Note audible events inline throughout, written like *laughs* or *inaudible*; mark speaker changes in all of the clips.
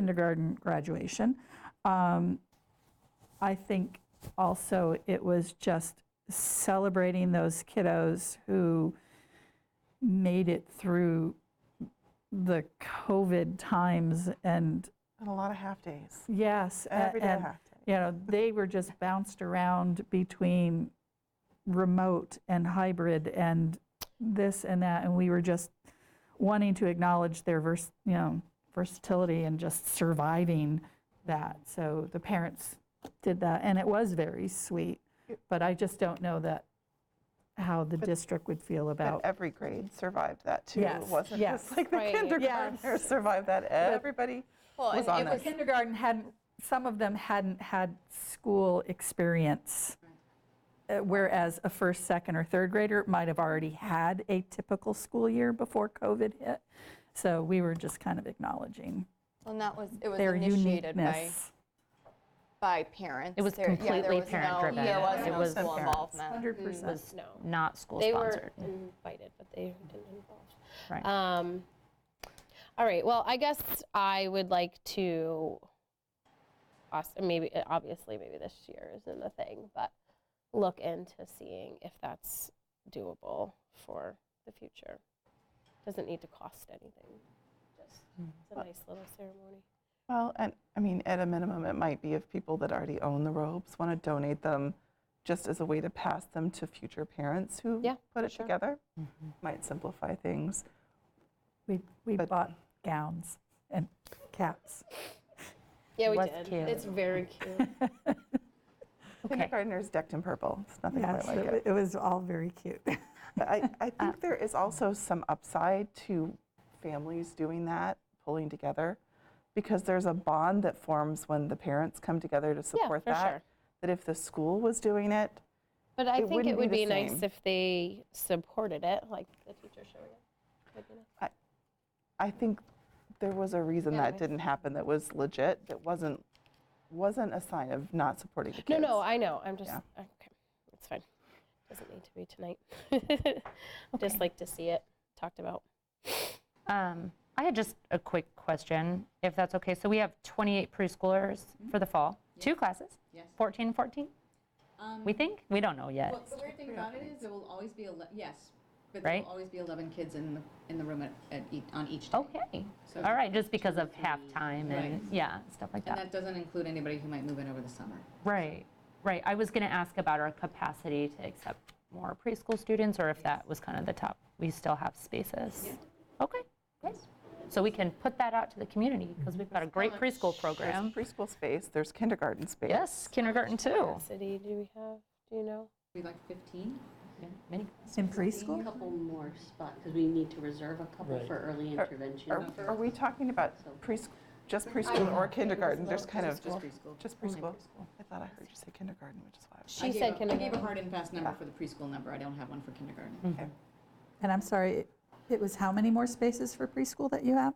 Speaker 1: kindergarten graduation. Um, I think also it was just celebrating those kiddos who made it through the COVID times and
Speaker 2: And a lot of half days.
Speaker 1: yes, a-
Speaker 2: Every day a
Speaker 1: and,
Speaker 2: half day.
Speaker 1: you know, they were just bounced around between remote and hybrid and this and that, and we were just wanting to acknowledge their vers, you know, versatility and just surviving that. So the parents did that, and it was very sweet, but I just don't know that, how the district would feel
Speaker 2: And
Speaker 1: about,
Speaker 2: every grade survived that too.
Speaker 1: Yes,
Speaker 2: It wasn't
Speaker 1: yes.
Speaker 2: just *laughs* like the
Speaker 3: Right,
Speaker 2: kindergartners
Speaker 1: yes.
Speaker 2: survived that. Everybody
Speaker 3: Well,
Speaker 2: was
Speaker 3: and
Speaker 2: on
Speaker 3: it
Speaker 1: the
Speaker 2: that.
Speaker 3: was-
Speaker 1: kindergarten hadn't, some of them hadn't had school experience, uh, whereas a first, second, or third grader might have already had a typical school year before COVID hit. So we were just kind of acknowledging
Speaker 3: And that was, it was
Speaker 1: their
Speaker 3: initiated by,
Speaker 1: uniqueness.
Speaker 3: by parents.
Speaker 4: It was
Speaker 3: There- yeah, there
Speaker 4: completely
Speaker 3: was no-
Speaker 4: parent-driven.
Speaker 3: There
Speaker 2: It
Speaker 3: was
Speaker 2: uh, was-
Speaker 3: no school involvement.
Speaker 1: 100%.
Speaker 4: was
Speaker 5: Mm, No,
Speaker 4: not school
Speaker 5: they
Speaker 4: sponsored.
Speaker 5: were invited, but they didn't involve.
Speaker 4: Right.
Speaker 5: Um, all right. Well, I guess I would like to. poss- Maybe uh, obviously, maybe this year isn't the thing, but look into seeing if that's doable for the future. Doesn't need to cost anything. Just it's a nice little ceremony.
Speaker 2: Well, and I mean, at a minimum, it might be if people that already own the robes want to donate them just as a way to pass them to future parents who
Speaker 5: Yeah,
Speaker 2: put it
Speaker 5: sure.
Speaker 2: together.
Speaker 1: Mm-hmm.
Speaker 2: Might simplify things.
Speaker 1: We, we
Speaker 2: But-
Speaker 1: bought gowns and caps.
Speaker 5: Yeah, we
Speaker 4: Was
Speaker 5: did.
Speaker 4: cute.
Speaker 5: It's very
Speaker 4: *laughs*
Speaker 5: cute.
Speaker 4: Okay.
Speaker 2: Kindergartners decked in purple. It's nothing
Speaker 1: Yes,
Speaker 2: quite like
Speaker 1: it
Speaker 2: it.
Speaker 1: wa- it was all very
Speaker 2: *laughs*
Speaker 1: cute.
Speaker 2: But I,
Speaker 5: Uh,
Speaker 2: I think there is also some upside to families doing that, pulling together, because there's a bond that forms when the parents come together to support
Speaker 5: for
Speaker 2: that.
Speaker 5: sure.
Speaker 2: That if the school was doing it,
Speaker 5: But I
Speaker 2: It
Speaker 5: think
Speaker 2: wouldn't be
Speaker 5: it would
Speaker 2: the
Speaker 5: be nice
Speaker 2: same.
Speaker 5: if they supported it, like the teacher showing it. Would be nice.
Speaker 2: I think there was a reason
Speaker 5: Yeah,
Speaker 2: that
Speaker 5: I-
Speaker 2: didn't happen that was legit, that wasn't, wasn't a sign of not supporting the
Speaker 5: No,
Speaker 2: kids.
Speaker 5: no, I know. I'm just,
Speaker 2: Yeah.
Speaker 5: okay, it's fine. Doesn't need to be tonight. *laughs* Just like to see it talked about.
Speaker 4: Um, I had just a quick question, if that's okay. So we have 28 preschoolers for the fall, two classes,
Speaker 6: Mm-hmm. Yes.
Speaker 4: 14 and 14,
Speaker 6: Um,
Speaker 4: we think? We don't know yet.
Speaker 6: Well, the weird thing about it is there will always be, ele- yes, but there
Speaker 4: Right?
Speaker 6: will always be 11 kids in the, in the room at, at each, on each
Speaker 5: Oh,
Speaker 6: day.
Speaker 4: Okay,
Speaker 6: So
Speaker 4: all right, just because
Speaker 6: two or
Speaker 4: of half
Speaker 6: three,
Speaker 4: time and,
Speaker 6: right.
Speaker 4: yeah, stuff like
Speaker 6: And
Speaker 4: that.
Speaker 6: that doesn't include anybody who might move in over the summer.
Speaker 4: Right, right. I was going to ask about our capacity to accept more preschool students, or if that was kind of the top, we still have spaces. Okay, great. So we can put that out to the community, because we've got a great preschool
Speaker 2: There's
Speaker 4: program.
Speaker 2: preschool space, there's kindergarten space.
Speaker 4: Yes, kindergarten too.
Speaker 5: City, do we have, do you know?
Speaker 6: We like 15?
Speaker 4: Many
Speaker 1: In
Speaker 7: A
Speaker 1: preschool?
Speaker 7: couple more spots, because we need to reserve a couple for early
Speaker 4: Er,
Speaker 7: intervention.
Speaker 2: Are, are we talking about preschool, just preschool or kindergarten? There's kind of,
Speaker 6: Just preschool.
Speaker 2: just preschool. I thought I heard you say kindergarten, which is why I was.
Speaker 6: I
Speaker 5: She
Speaker 6: gave
Speaker 5: said
Speaker 6: a- I gave
Speaker 5: kindergarten.
Speaker 6: a
Speaker 5: Mm-hmm.
Speaker 6: hard and fast number for the preschool number. I don't have one for kindergarten.
Speaker 1: And I'm sorry, it- it was how many more spaces for preschool that you have?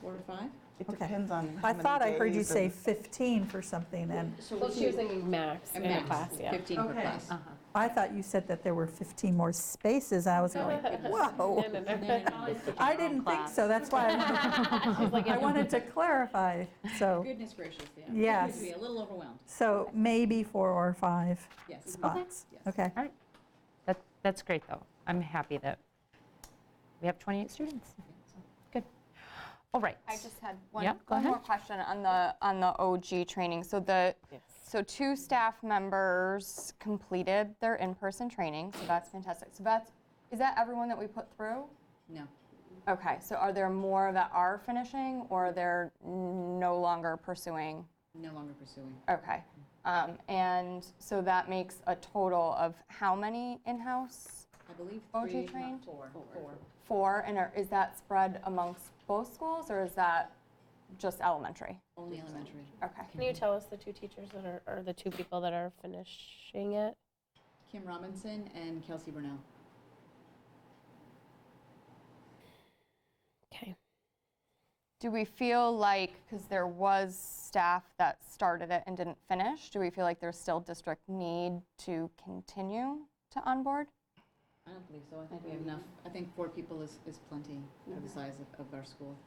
Speaker 6: Four to five?
Speaker 2: It
Speaker 1: Okay.
Speaker 2: depends on how
Speaker 1: I
Speaker 2: many
Speaker 1: thought I heard you
Speaker 2: days
Speaker 1: say
Speaker 2: and-
Speaker 1: 15 for something, and
Speaker 5: Well, she was thinking max in
Speaker 6: And
Speaker 5: a
Speaker 6: max,
Speaker 5: class, yeah. Uh-huh.
Speaker 6: 15 per
Speaker 1: Okay.
Speaker 6: class.
Speaker 1: I thought you said that there were 15 more spaces, and I was going, whoa. *laughs*
Speaker 5: No, no, no.
Speaker 1: I didn't think so, that's why I wanted- I wanted to clarify, so,
Speaker 6: Goodness gracious, yeah.
Speaker 1: Yes.
Speaker 6: We'd be a little overwhelmed,
Speaker 1: so maybe four or five
Speaker 6: yes.
Speaker 1: spots.
Speaker 6: Yes.
Speaker 1: Okay,
Speaker 4: All right. That, that's great, though. I'm happy that we have 28 students. Good. All right.
Speaker 3: I just had one,
Speaker 4: Yeah, go
Speaker 3: one more
Speaker 4: ahead.
Speaker 3: question on the, on the OG training. So the, so two staff members completed their in-person training, so that's fantastic. So that's, is that everyone that we put through?
Speaker 6: No,
Speaker 3: Okay, so are there more that are finishing or they're no longer pursuing?
Speaker 6: no longer pursuing.
Speaker 3: Okay. Um, and so that makes a total of how many in-house?
Speaker 6: I believe
Speaker 3: OG
Speaker 6: three,
Speaker 3: trained?
Speaker 6: not four. Four.
Speaker 3: Four, and are- is that spread amongst both schools or is that just elementary?
Speaker 6: Only elementary.
Speaker 3: Okay.
Speaker 5: Can you tell us the two teachers that are, or the two people that are finishing it?
Speaker 6: Kim Robinson and Kelsey Burnell.
Speaker 5: Okay.
Speaker 3: Do we feel like, because there was staff that started it and didn't finish, do we feel like there's still district need to continue to onboard?
Speaker 6: I don't believe so. I think we have enough. I think four people is, is plenty for the size of, of our school.